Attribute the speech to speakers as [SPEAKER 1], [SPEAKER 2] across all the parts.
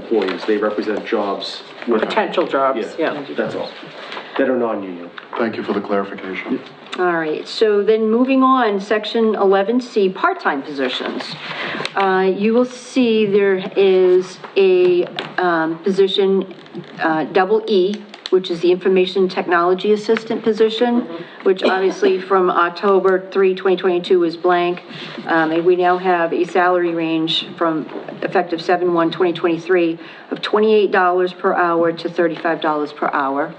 [SPEAKER 1] employees, they represent jobs. We're not-
[SPEAKER 2] potential jobs,
[SPEAKER 1] Yeah,
[SPEAKER 2] yeah.
[SPEAKER 1] that's all, that are non-union.
[SPEAKER 3] Thank you for the clarification.
[SPEAKER 4] All right, so then moving on, section 11C, part-time positions. Uh, You will see there is a um, position, uh, double E, which is the Information Technology Assistant position, which obviously from October 3, 2022 is blank. Um, And we now have a salary range from effective 7/1/2023 of $28 per hour to $35 per hour.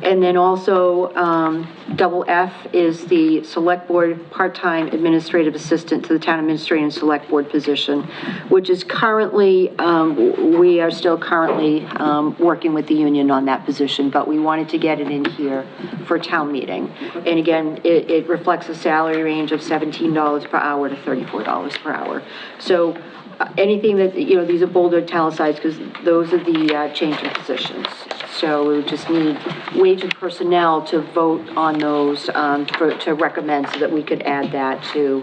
[SPEAKER 4] And then also, um, double F is the Select Board Part-Time Administrative Assistant to the Town Administrator and Select Board position, which is currently, um, w- we are still currently um, working with the union on that position, but we wanted to get it in here for town meeting. And again, it it reflects a salary range of $17 per hour to $34 per hour. So uh, anything that, you know, these are bolded italicized because those are the uh, change in positions. So we would just need wage and personnel to vote on those, um, for, to recommend so that we could add that to,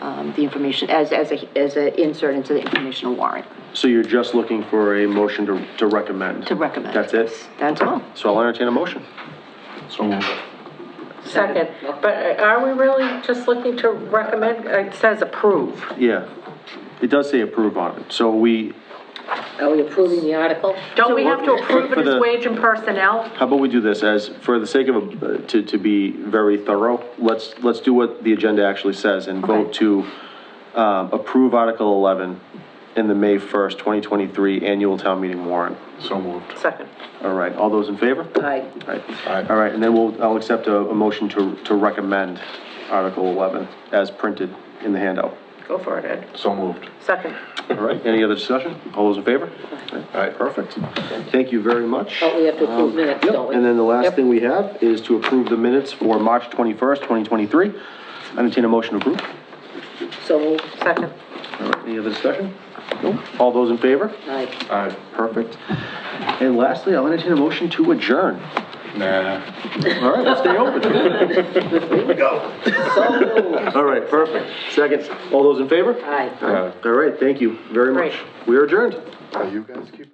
[SPEAKER 4] um, the information, as, as a, as an insert into the informational warrant,
[SPEAKER 1] So you're just looking for a motion to, to recommend?
[SPEAKER 4] to recommend.
[SPEAKER 1] That's it?
[SPEAKER 4] That's all.
[SPEAKER 1] So I'll entertain a motion.
[SPEAKER 3] So moved.
[SPEAKER 2] Second, but uh, are we really just looking to recommend, uh, it says approve?
[SPEAKER 1] Yeah, it does say approve on it, so we,
[SPEAKER 5] Are we approving the article?
[SPEAKER 2] Don't we have to approve
[SPEAKER 1] For
[SPEAKER 2] it
[SPEAKER 1] the-
[SPEAKER 2] as wage and personnel?
[SPEAKER 1] how about we do this as, for the sake of, uh, to, to be very thorough, let's, let's do what the agenda actually says and vote to, um, approve Article eleven in the May first, twenty twenty-three annual town meeting warrant.
[SPEAKER 3] So moved.
[SPEAKER 2] Second.
[SPEAKER 1] All right, all those in favor?
[SPEAKER 5] Aye.
[SPEAKER 1] All
[SPEAKER 3] Aye.
[SPEAKER 1] right, all right, and then we'll, I'll accept a, a motion to, to recommend Article eleven as printed in the handout.
[SPEAKER 2] Go for it, Ed.
[SPEAKER 3] So moved.
[SPEAKER 2] Second.
[SPEAKER 1] All right, any other discussion? All those in favor? All right, perfect. Thank you very much. Um,
[SPEAKER 5] But we have to approve minutes, don't we?
[SPEAKER 1] And then the last
[SPEAKER 5] Yep.
[SPEAKER 1] thing we have is to approve the minutes for March 21st, 2023. Entertain a motion to approve.
[SPEAKER 5] So moved.
[SPEAKER 2] Second.
[SPEAKER 1] All right, any other discussion? No? All those in favor?
[SPEAKER 5] Aye.
[SPEAKER 3] Aye.
[SPEAKER 1] Perfect. And lastly, I'll entertain a motion to adjourn.
[SPEAKER 3] Nah.
[SPEAKER 1] All right, let's stay open.
[SPEAKER 5] So moved.
[SPEAKER 1] All right, perfect. Seconds. All those in favor?
[SPEAKER 5] Aye.
[SPEAKER 1] All right, thank you very much.
[SPEAKER 2] Great.
[SPEAKER 1] We are adjourned.
[SPEAKER 3] Now you guys keep it.